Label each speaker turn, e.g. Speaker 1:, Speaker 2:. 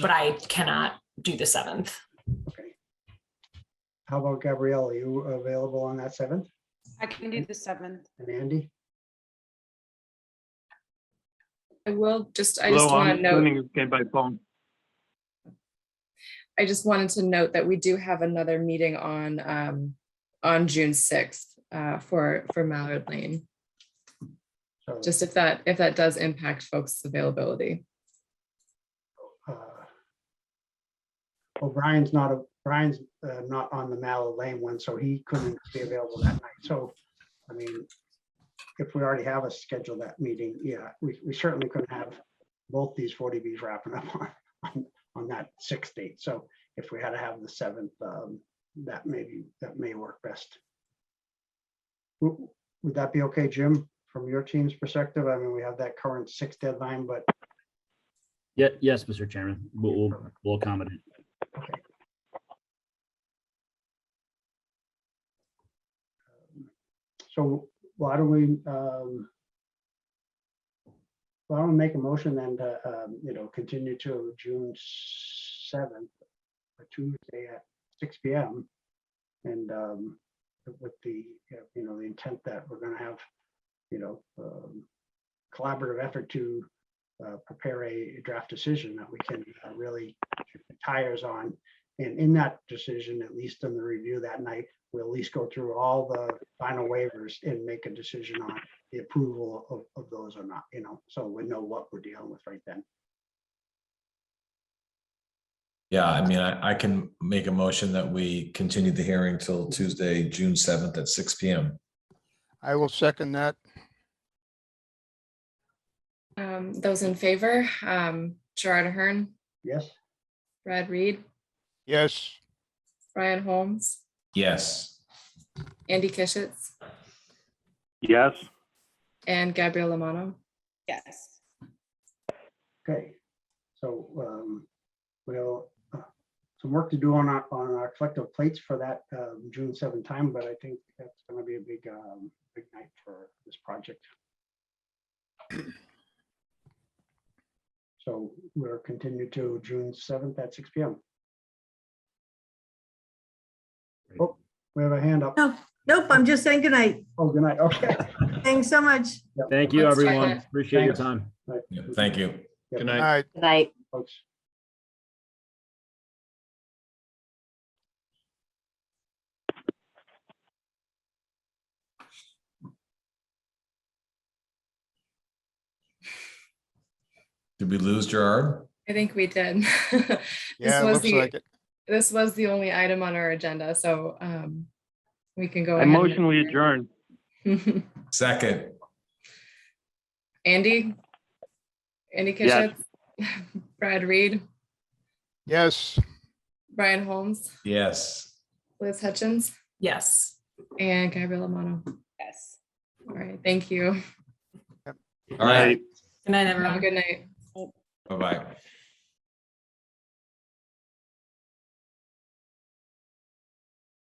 Speaker 1: but I cannot do the seventh.
Speaker 2: How about Gabrielle? Are you available on that seventh?
Speaker 3: I can do the seventh.
Speaker 2: And Andy?
Speaker 4: I will just, I just
Speaker 5: Although
Speaker 4: want
Speaker 5: I'm
Speaker 4: to note,
Speaker 5: Doing it by phone.
Speaker 4: I just wanted to note that we do have another meeting on, um, on June sixth, uh, for, for Mallard Lane.
Speaker 2: So,
Speaker 4: Just if that, if that does impact folks' availability.
Speaker 2: uh, Well, Brian's not, a Brian's uh, not on the Mallow Lane one, so he couldn't be available that night. So, I mean, if we already have a schedule that meeting, yeah, we, we certainly couldn't have both these 40Bs wrapping up on, on, on that sixth date. So if we had to have the seventh, um, that maybe, that may work best. W- Would that be okay, Jim, from your team's perspective? I mean, we have that current sixth deadline, but
Speaker 6: Yeah, yes, Mr. Chairman, we'll, we'll- we'll accommodate.
Speaker 2: So why don't we, um, why don't we make a motion then to, um, you know, continue to June seventh, a Tuesday at six P M. And, um, with the, you know, the intent that we're gonna have, you know, um, collaborative effort to, uh, prepare a draft decision that we can uh, really kick the tires on. And in that decision, at least in the review that night, we'll at least go through all the final waivers and make a decision on the approval of, of those or not, you know, so we know what we're dealing with right then.
Speaker 7: Yeah, I mean, I, I can make a motion that we continue the hearing till Tuesday, June seventh at six P M.
Speaker 8: I will second that.
Speaker 4: Um, those in favor, um, Gerard Ahern,
Speaker 2: Yes,
Speaker 4: Brad Reed,
Speaker 8: Yes,
Speaker 4: Ryan Holmes,
Speaker 7: Yes,
Speaker 4: Andy Kishitz,
Speaker 5: Yes,
Speaker 4: and Gabrielle Lamano.
Speaker 3: Yes.
Speaker 2: okay. So, um, we'll, uh, some work to do on our, on our collective plates for that, um, June seventh time, but I think that's gonna be a big, um, big night for this project. So we're continued to June seventh at six P M. Oh, we have a hand up.
Speaker 9: No, nope, I'm just saying goodnight.
Speaker 2: Oh, good night, okay.
Speaker 9: Thanks so much.
Speaker 6: Thank you,
Speaker 4: Let's try
Speaker 6: everyone.
Speaker 4: that.
Speaker 6: Appreciate your
Speaker 2: Thanks.
Speaker 6: time.
Speaker 2: Right.
Speaker 7: Yeah, thank you.
Speaker 2: Yep.
Speaker 5: Good
Speaker 8: all
Speaker 5: night.
Speaker 8: right.
Speaker 9: Night.
Speaker 2: Folks.
Speaker 7: Did we lose Gerard?
Speaker 4: I think we did. This
Speaker 8: Yeah, it
Speaker 4: was
Speaker 8: looks
Speaker 4: the-
Speaker 8: like it.
Speaker 4: This was the only item on our agenda, so, um, we can go
Speaker 5: I
Speaker 4: ahead.
Speaker 5: motion we adjourn.
Speaker 4: adjourn.
Speaker 7: Second,
Speaker 4: Andy? Andy
Speaker 5: Yes.
Speaker 4: Kishitz? Brad Reed?
Speaker 8: Yes,
Speaker 4: Brian Holmes?
Speaker 7: yes.
Speaker 4: Liz Hutchins?
Speaker 1: Yes.
Speaker 4: And Gabriella Mono.
Speaker 3: Yes.
Speaker 4: All right, thank you.
Speaker 7: All right,
Speaker 1: Good night,
Speaker 4: Have a
Speaker 1: everyone.
Speaker 4: good night.
Speaker 7: bye-bye.